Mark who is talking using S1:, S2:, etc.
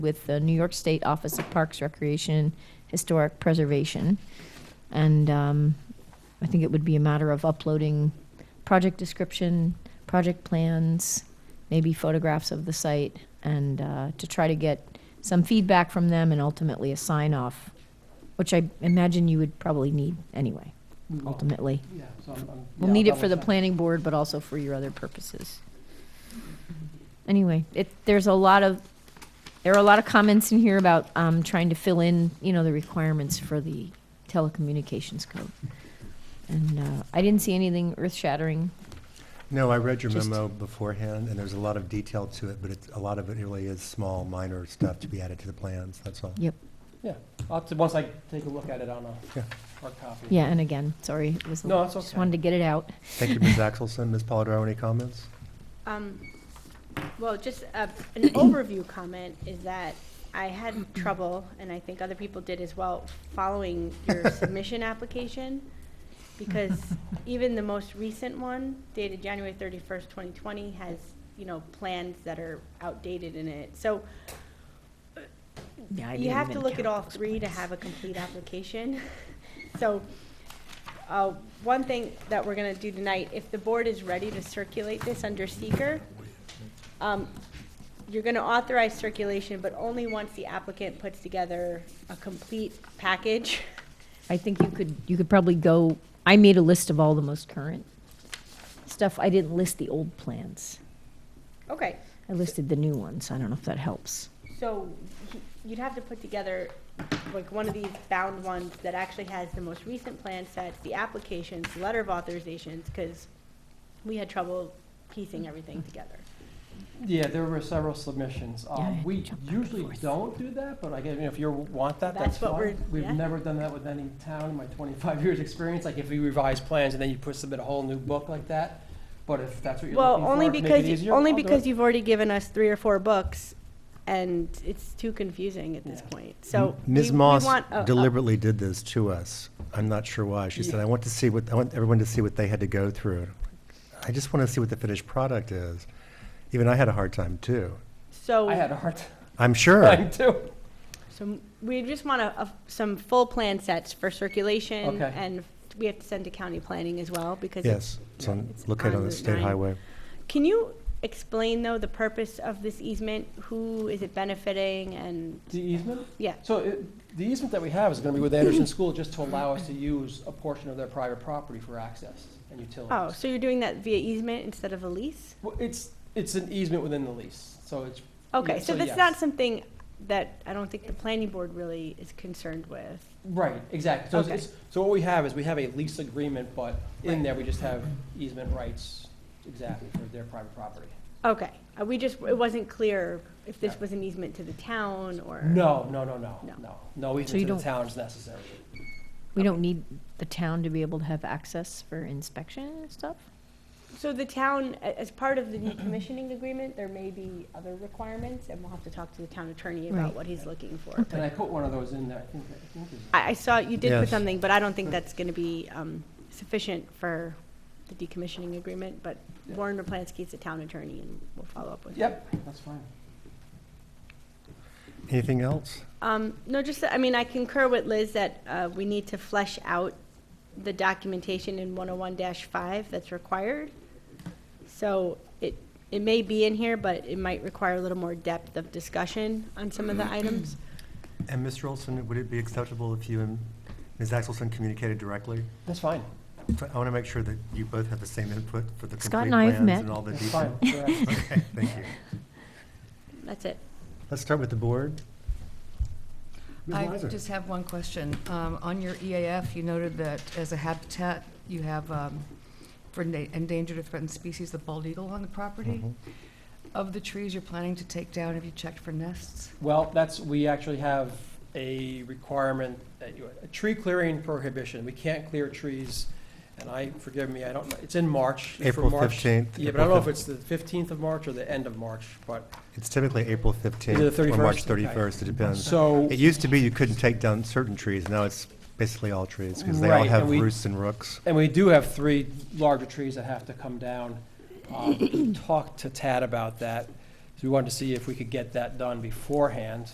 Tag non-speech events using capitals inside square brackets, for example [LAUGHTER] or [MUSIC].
S1: with the New York State Office of Parks, Recreation, Historic Preservation. And um, I think it would be a matter of uploading project description, project plans, maybe photographs of the site, and uh, to try to get some feedback from them and ultimately a sign off, which I imagine you would probably need anyway,
S2: We will.
S1: ultimately.
S2: Oh. Yeah, so I'm- I'm-
S1: We'll
S2: yeah,
S1: need it
S2: I'll
S1: for the
S2: double check.
S1: planning board, but also for your other purposes. Anyway, it, there's a lot of, there are a lot of comments in here about, um, trying to fill in, you know, the requirements for the telecommunications code. And, uh, I didn't see anything earth-shattering.
S3: No, I read your
S1: Just-
S3: memo beforehand, and there's a lot of detail to it, but it's, a lot of it really is small, minor stuff to be added to the plans, that's all.
S1: Yep,
S2: Yeah, I'll have to- once I take a look at it on a
S3: Yeah.
S2: hard copy.
S1: yeah, and again, sorry, it was,
S2: No, that's
S1: just wanted to
S2: okay.
S1: get it out.
S3: Thank you, [LAUGHS] Ms. Axelson. Ms. Polidoro, any comments?
S4: Um, Well, just uh, an overview comment is that I had trouble, and I think other people did as well, following your submission application, because even the most recent one dated January 31st, 2020, has, you know, plans that are outdated in it. So you have to look at all three to have a complete application. [LAUGHS] So, uh, one thing that we're gonna do tonight, if the board is ready to circulate this under seeker, um, you're gonna authorize circulation, but only once the applicant puts together a complete package. [LAUGHS]
S1: I think you could, you could probably go, I made a list of all the most current stuff. I didn't list the old plans.
S4: Okay,
S1: I listed the new ones. I don't know if that helps.
S4: so he- you'd have to put together like one of these bound ones that actually has the most recent plan sets, the applications, the letter of authorizations, because we had trouble piecing everything together.
S2: Yeah, there were several submissions.
S1: I
S2: Um,
S1: had to
S2: we
S1: jump back and
S2: usually
S1: forth.
S2: don't do that, but I guess, you know, if you want that,
S4: That's
S2: that's
S4: what we're-
S2: fine. We've
S4: yeah.
S2: never done that with any town in my twenty-five years' experience, like if we revise plans and then you put, submit a whole new book like that. But if that's what you're
S4: Well,
S2: looking for,
S4: only
S2: to make
S4: because,
S2: it
S4: you-
S2: easier,
S4: only
S2: I'll do
S4: because
S2: it.
S4: you've already given us three or four books, and it's too confusing at this
S2: Yeah.
S4: point, so. we-
S3: Ms.
S4: we
S3: Moss
S4: want a- a-
S3: deliberately did this to us. I'm not sure why. She said,
S2: Yeah.
S3: I want to see what, I want everyone to see what they had to go through. I just want to see what the finished product is. Even I had a hard time, too.
S2: I
S4: So,
S2: had a hard
S3: I'm [LAUGHS] sure.
S2: time too.
S4: so we just want a, a- some full plan sets for circulation,
S2: Okay.
S4: and we have to send to county planning as well, because. it's-
S3: Yes, it's on-
S4: It's
S3: located
S4: on
S3: on the
S4: Route
S3: state
S4: nine.
S3: highway.
S4: Can you explain, though, the purpose of this easement? Who is it benefiting, and,
S2: The easement?
S4: yeah,
S2: So it- the easement that we have is going to be with Anderson School just to allow us to use a portion of their private property for access and utilities.
S4: oh, so you're doing that via easement instead of a lease?
S2: Well, it's, it's an easement within the lease, so it's.
S4: Okay,
S2: Yeah,
S4: so
S2: so
S4: that's
S2: yes.
S4: not something that I don't think the planning board really is concerned with.
S2: Right, exactly. So,
S4: Okay.
S2: it's- so what we have is we have a lease agreement, but in there, we just have easement rights, exactly, for their private property.
S4: Okay, Uh, we just, it wasn't clear if this
S2: Yeah.
S4: was an easement to the town or.
S2: No, no, no, no,
S4: No.
S2: no. No
S1: So you
S2: easement to
S1: don't-
S2: the town is necessary.
S1: We don't need the town to be able to have access for inspection and stuff?
S4: So the town, a- as part of the decommissioning agreement, there may be other requirements, and we'll have to talk to the town attorney about
S1: Right.
S4: what he's looking for.
S2: And I put one of those in there, I think, I think it's-
S4: I, I saw, you did put
S3: Yes.
S4: something, but I don't think that's gonna be, um, sufficient for the decommissioning agreement, but
S2: Yeah.
S4: Warren Raplansky is the town attorney, and we'll follow up with him.
S2: Yep, that's fine.
S3: Anything else?
S4: Um, no, just, I mean, I concur with Liz that, uh, we need to flesh out the documentation in one oh one five that's required. So it, it may be in here, but it might require a little more depth of discussion on some of
S2: Mm-hmm.
S4: the items.
S3: And Mr. Olson, would it be acceptable if you and Ms. Axelson communicated directly?
S2: That's fine.
S3: I want to make sure that you both have the same input for the
S1: Scott
S3: complete
S1: and I have
S3: plans
S1: met.
S3: and all the
S2: That's
S3: detail.
S2: fine. Correct.
S3: Okay, thank
S2: [LAUGHS]
S3: you.
S4: That's it.
S3: Let's start with the board. Ms.
S5: I
S3: Weiser.
S5: just have one question. Um, On your EAF, you noted that as a habitat, you have um, for enda- endangered or threatened species, the bald eagle on the property.
S3: Mhm.
S5: Of the trees you're planning to take down, have you checked for nests?
S2: Well, that's, we actually have a requirement, that you- a tree clearing prohibition. We can't clear trees, and I, forgive me, I don't, know. it's in March. for
S3: April
S2: March.
S3: 15th,
S2: Yeah, but I don't
S3: April
S2: know if it's the 15th of March or the end of March, but,
S3: It's typically April 15th.
S2: Is it the
S3: Or March
S2: 31st? Okay.
S3: 31st, it depends.
S2: so.
S3: It used to be you couldn't take down certain trees, now it's basically all trees, because they all
S2: Right,
S3: have
S2: and we-
S3: roosts and rooks.
S2: And we do have three larger trees that have to come down. Um, Talked to Tad about that, so we wanted to see if we could get that done beforehand.